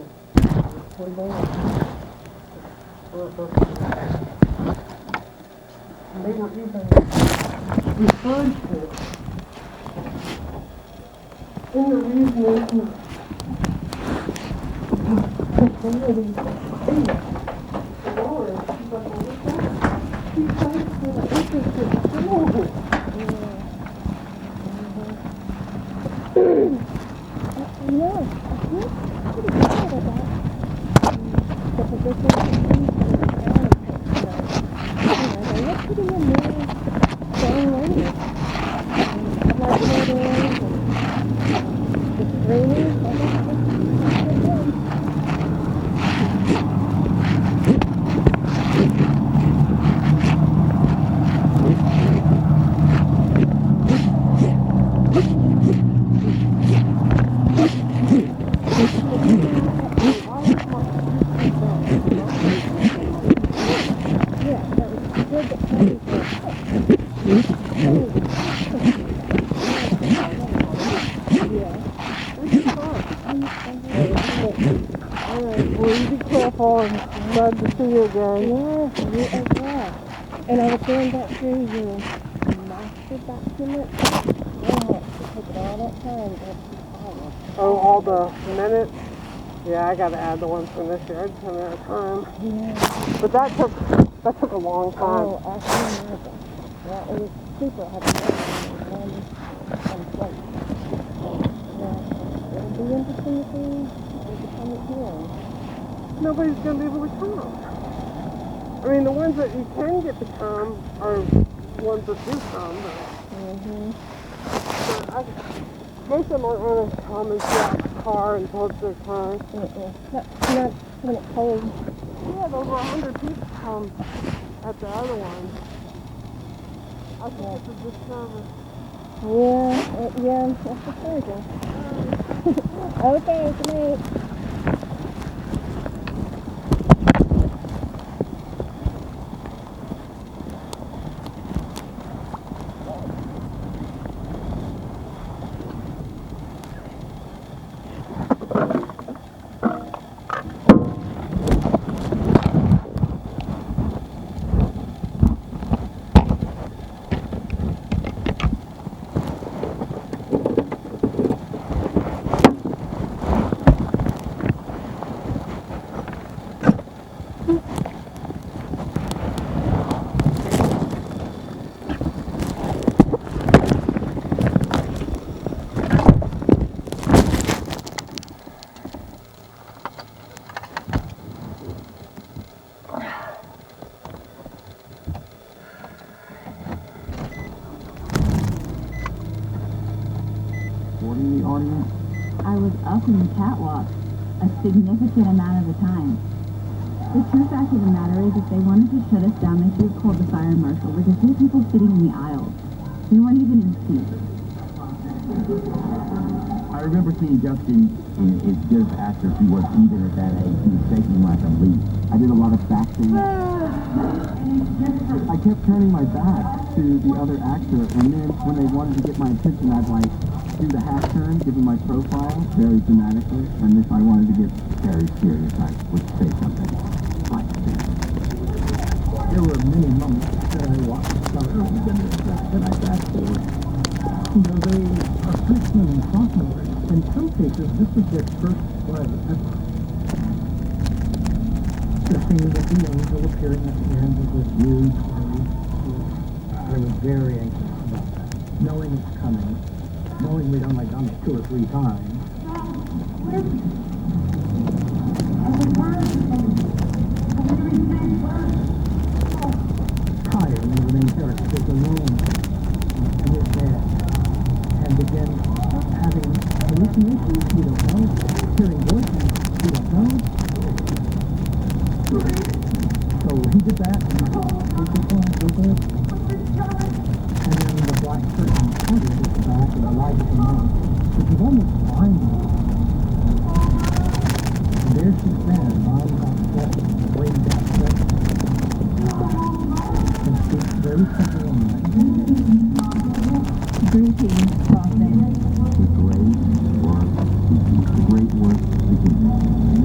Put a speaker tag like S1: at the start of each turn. S1: They were even referred to in the reasoning. Continually, in the Lord, she's like, well, what's that? She's like, well, this is just horrible.
S2: Well, you be careful and glad to see you again.
S1: Yes, you as well. And I was going back through your master document. Oh, it took all that time to follow.
S2: Oh, all the minutes? Yeah, I gotta add the ones from this year. I just haven't had time.
S1: Yeah.
S2: But that took, that took a long time.
S1: Oh, I see now. Well, it was super happy. One, one plate. Yeah. It'll be interesting to see what the public hearing.
S2: Nobody's gonna be able to come. I mean, the ones that you can get to come are ones that do come, but,
S1: Mm-hmm.
S2: but I, most of them aren't gonna come and get out of the car and tow it to their car.
S1: Mm-mm. Not, not when it's cold.
S2: We had over a hundred people come at the other one. I think it's a disservice.
S1: Yeah, it, yeah, that's the surgeon. okay, good night.
S3: What in the audience?
S4: I was up in the catwalk a significant amount of the time. The true fact of the matter is, if they wanted to shut us down, they should have called the fire marshal because we had people sitting in the aisles. We weren't even in seats.
S3: I remember seeing Justin in his good actor he was even at that age. He was shaking like a leaf. I did a lot of backing. I kept turning my back to the other actor, and then when they wanted to get my attention, I'd like do the half turn, give them my profile very dramatically, and if I wanted to get very serious, I would say something like this. There were many moments that I watched about oh, my goodness, that I fast forward. You know, they are freshmen and sophomores. In some cases, this is their first play. That's the thing with the angel appearing at the end of this huge play. I was very anxious about that. Knowing it's coming, knowing we'd only done it two or three times. Tired of the main characters alone in his head and begin having hallucinations you don't know, hearing voices you don't know. So he did that. and I thought, "Okay, cool, okay." And then the black curtain parted at the back and the light came on. It was almost blinding. And there she sat,